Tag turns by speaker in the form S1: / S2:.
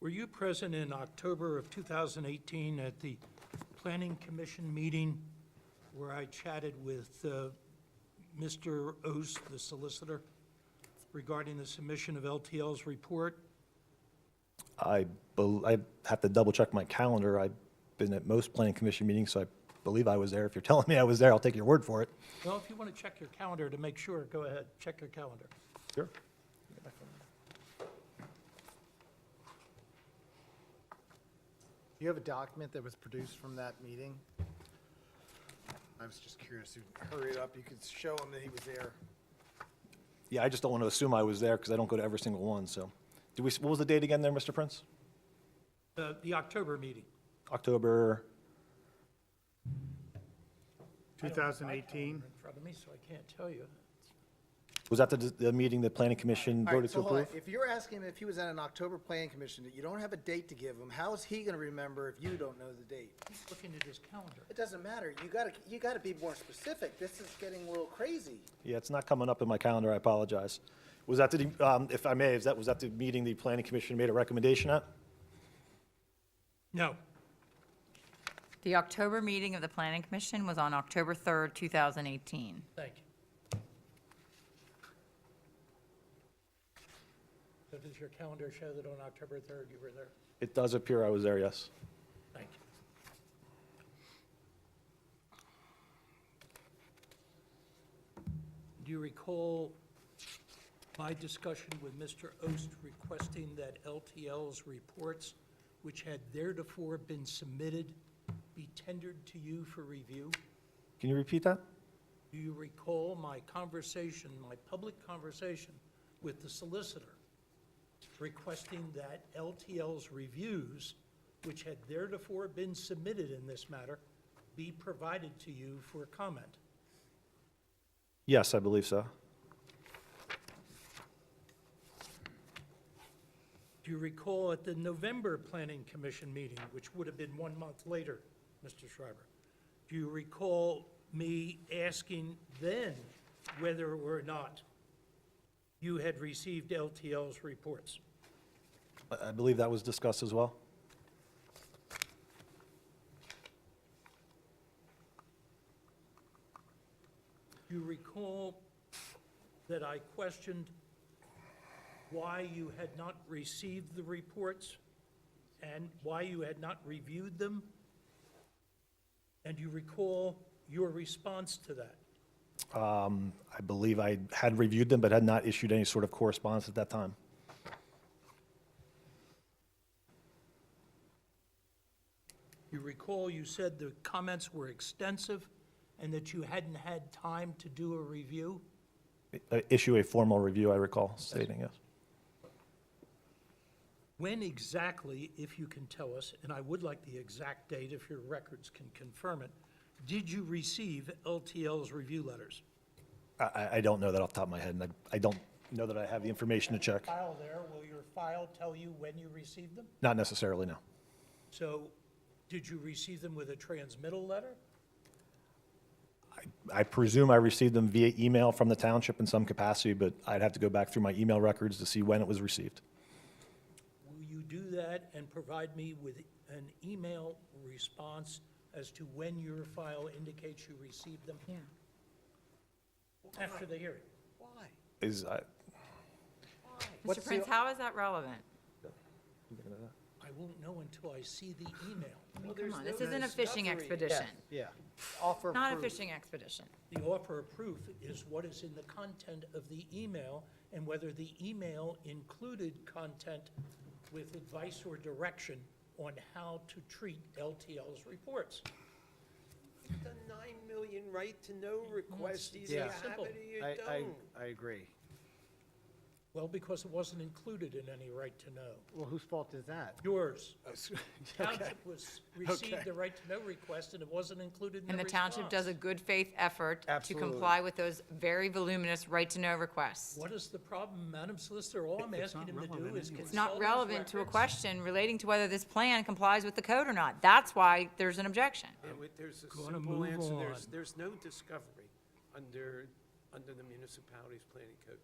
S1: Were you present in October of 2018 at the Planning Commission meeting where I chatted with uh, Mr. Oast, the solicitor, regarding the submission of LTL's report?
S2: I, bel- I have to double check my calendar. I've been at most planning commission meetings, so I believe I was there. If you're telling me I was there, I'll take your word for it.
S1: Well, if you want to check your calendar to make sure, go ahead, check your calendar.
S2: Sure.
S3: Do you have a document that was produced from that meeting? I was just curious, You hurry it up, you could show him that he was there.
S2: Yeah, I just don't want to assume I was there because I don't go to every single one, so. Do we, s- what was the date again there, Mr. Prince?
S1: Uh, The October meeting.
S2: October,
S4: 2018?
S1: In front of me, so I can't tell you.
S2: was that the, the meeting the planning commission
S3: All right,
S2: voted to
S3: so hold on.
S2: approve?
S3: If you're asking him if he was at an October planning commission, that you don't have a date to give him, how is he gonna remember if you don't know the date?
S1: He's looking at his calendar.
S3: It doesn't matter, you gotta, you gotta be more specific, this is getting a little crazy.
S2: Yeah, it's not coming up in my calendar, I apologize. Was that the, um, if I may, is that, was that the meeting the planning commission made a recommendation at?
S1: No,
S5: The October meeting of the Planning Commission was on October 3rd, 2018.
S1: thank you. So does your calendar show that on October 3rd you were there?
S2: It does appear I was there, yes.
S1: Thank you. Do you recall my discussion with Mr. Ost requesting that LTL's reports, which had theretofore been submitted, be tendered to you for review?
S2: Can you repeat that?
S1: Do you recall my conversation, my public conversation with the solicitor requesting that LTL's reviews, which had theretofore been submitted in this matter, be provided to you for comment?
S2: Yes, I believe so.
S1: Do you recall at the November Planning Commission meeting, which would have been one month later, Mr. Schreiber? Do you recall me asking then whether or not you had received LTL's reports?
S2: I- I believe that was discussed as well.
S1: You recall that I questioned why you had not received the reports and why you had not reviewed them? And you recall your response to that?
S2: I believe I had reviewed them, but had not issued any sort of correspondence at that time.
S1: You recall you said the comments were extensive and that you hadn't had time to do a review?
S2: I- Uh, Issue a formal review, I recall stating, yes.
S1: When exactly, if you can tell us, and I would like the exact date if your records can confirm it, did you receive LTL's review letters?
S2: I- I, I don't know that off the top of my head, and I, I don't know that I have the information to check.
S1: file there, will your file tell you when you received them?
S2: Not necessarily, no.
S1: So, did you receive them with a transmittal letter?
S2: I presume I received them via email from the township in some capacity, but I'd have to go back through my email records to see when it was received.
S1: Will you do that and provide me with an email response as to when your file indicates you received them
S5: Yeah.
S1: after the hearing?
S3: Why?
S2: Is, uh, I,
S3: What's
S5: Mr.
S3: the-
S5: Prince, how is that relevant?
S1: I won't know until I see the email.
S5: Come on, this isn't a fishing expedition,
S3: Yeah, offer
S5: not a
S3: proof.
S5: fishing expedition.
S1: The offer of proof is what is in the content of the email and whether the email included content with advice or direction on how to treat LTL's reports.
S6: The nine million right to know request, either you
S3: Yeah.
S6: have it or you
S3: I, I,
S6: don't.
S3: I agree.
S1: Well, because it wasn't included in any right to know.
S3: Well, whose fault is that?
S1: Yours.
S3: Okay.
S1: Township was, received the right to know request and it wasn't included in
S5: And
S1: the
S5: the township does a
S1: response.
S5: good faith effort to
S3: Absolutely.
S5: comply with those very voluminous right-to-know requests.
S1: What is the problem, Madam Solicitor? All I'm asking him to do is consult his
S5: It's not relevant to a
S1: records.
S5: question relating to whether this plan complies with the code or not. That's why there's an objection.
S6: Yeah, wait, There's a
S1: gonna
S6: simple
S1: move
S6: answer, there's,
S1: on.
S6: there's no discovery under, under the municipality's planning code.